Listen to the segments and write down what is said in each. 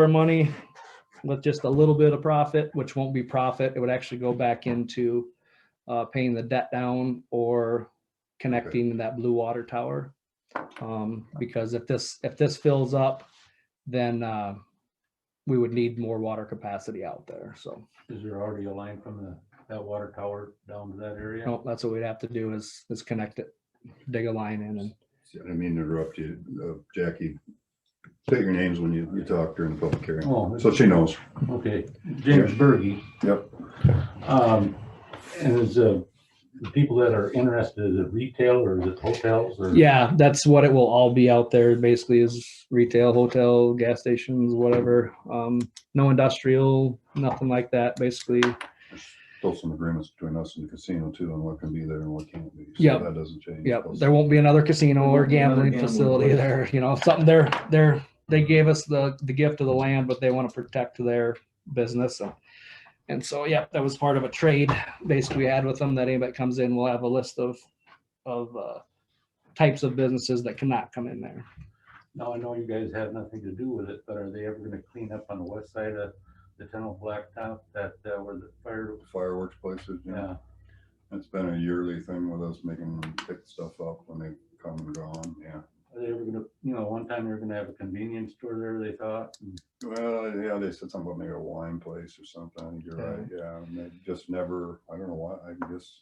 our money with just a little bit of profit, which won't be profit. It would actually go back into uh, paying the debt down or connecting that blue water tower. Um, Because if this, if this fills up, then uh, we would need more water capacity out there. So Is there already a line from the, that water tower down to that you area? know, that's what we'd have to do is, is connect it, dig a line in and I didn't mean to interrupt you, uh, Jackie. Say your names when you, you talk during the public hearing. Oh, So she knows. okay, James Bergy. Yep. Um, and is, uh, the people that are interested, is it retail or is it hotels or? Yeah, that's what it will all be out there. Basically, is retail, hotel, gas stations, whatever. Um, no industrial, nothing like that. Basically, Still some agreements between us and the casino too on what can be there and what can't be. So Yep. That doesn't change. yep. There won't be another casino or gambling facility there. You know, something they're they're they gave us the the gift of the land, but they want to protect their business. So. And so, yep, that was part of a trade basically we had with them that anybody comes in, will have a list of of uh, types of businesses that cannot come in there. Now, I know you guys have nothing to do with it, but are they ever gonna clean up on the west side of the tunnel blacktop that, uh, where the fire? Fireworks places, yeah. Yeah, It's been a yearly thing with us making them pick stuff up when they come and gone, yeah. are they ever gonna, you know, one time they were gonna have a convenience store there, they thought, and Well, yeah, they said something about maybe a wine place or something. I think You're right, yeah. And they just never, I don't know why, I guess,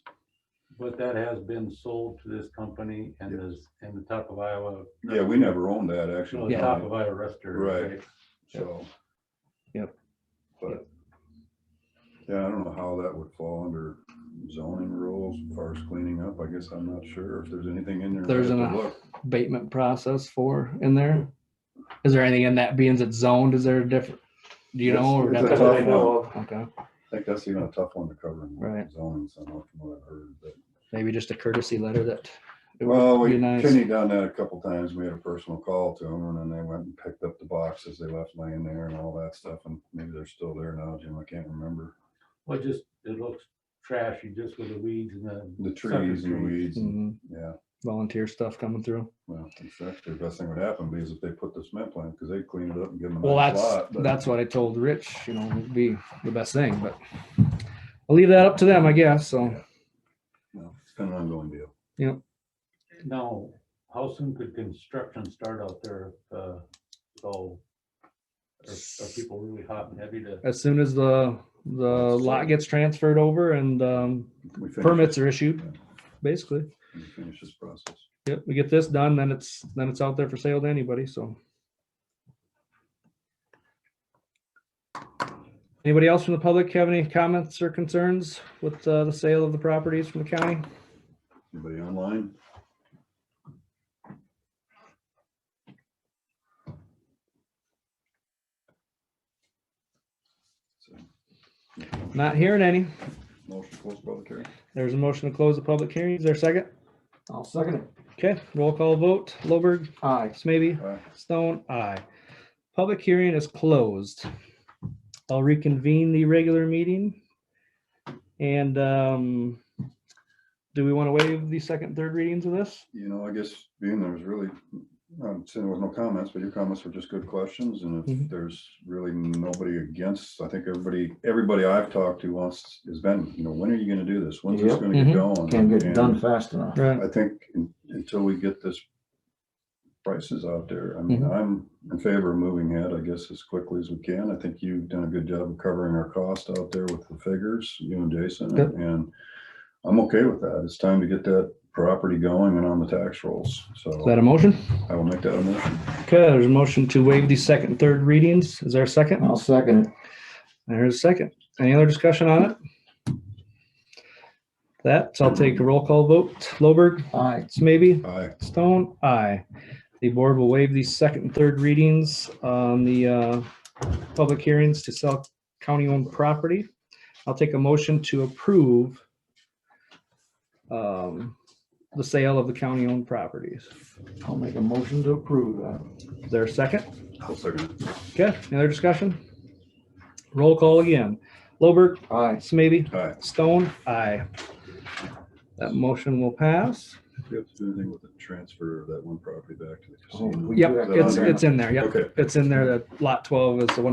But that has been sold to this company and is in the top of Iowa. yeah, we never owned that No, actually. the top of Iowa restaurant. Right. So. Yep. But. Yeah, I don't know how that would fall under zoning rules, as far as cleaning up. I guess I'm not sure if there's anything in there. I There's have to an- look. abatement process for in there? Is there anything in that being it's zoned? Is there a different, do you know? or It's- that's it's a what I tough know? one. Okay, I think that's even a tough one to cover. in Right. Zoning somehow from what I've heard, but. maybe just a courtesy letter that. it would Well, be we, nice. Kenny done that a couple times. We had a personal call to them and then they went and picked up the boxes they left laying there and all that stuff. And maybe they're still there now, Jim. I can't remember. Well, just, it looks trashy just with the weeds and the. The sucker trees and weeds, and- Mhm, yeah. Volunteer stuff coming through. Well, in fact, the best thing would happen be is if they put the cement plant, because they clean it up and give them a Well, nice that's, lot, but- that's what I told Rich, you know, would be the best thing, but I'll leave that up to them, I guess, so. no, It's kind of an ongoing deal. Now, how soon could construction start out there? if, uh, it's all- Are are people really hot and heavy to? As soon as the, the lot gets transferred over and, um, We finish- permits are issued, basically. we Finish this process. Yep, we get this done, then it's, then it's out there for sale to anybody, so. Anybody else from the public have any comments or concerns with uh, the sale of the properties from the county? Anybody online? So, Not hearing any. Motion to close public hearing? There's a motion to close the public hearing. Is there a second? I'll second it. Okay, roll call vote. Lowberg, Aye. Smithy, Aye. Stone, aye. Public hearing is closed. I'll reconvene the regular meeting. And um, do we want to waive the second, third readings of this? You know, I guess being there was really, I'm sitting with no comments, but your comments were just good questions. And Mhm. if Mm-hmm. there's really nobody against, I think everybody, everybody I've talked to wants, has been, you know, when are you gonna do this? When's this Yep. Mm-hmm. gonna get going? Can't get it done And fast enough. Right. I think un- until we get this prices out there, I mean, Mhm. I'm in favor of moving ahead, I guess, as quickly as we can. I think you've done a good job of covering our cost out there with the figures, you and Jason, Yep. and I'm okay with that. It's time to get that property going and on the tax rolls. So. Is that a motion? I will make that a motion. Okay, there's a motion to waive the second, and third readings. Is there a second? I'll second it. There's a second. Any other discussion on it? That, so I'll take a roll call vote. Lowberg, Aye. Smithy, Aye. Stone, aye. The board will waive the second, and third readings on the uh, public hearings to sell county-owned property. I'll take a motion to approve um, the sale of the county-owned properties. I'll make a motion to approve that. Is there a second? I'll second it. Okay, any other discussion? Roll call again. Lowberg, Aye. Smithy, Aye. Stone, aye. That motion will pass. Do you have to do anything with the transfer of that one property back to the Oh, casino? we do Yep, have to- it's, it's in there, yep. Okay. It's in there, that lot twelve is the one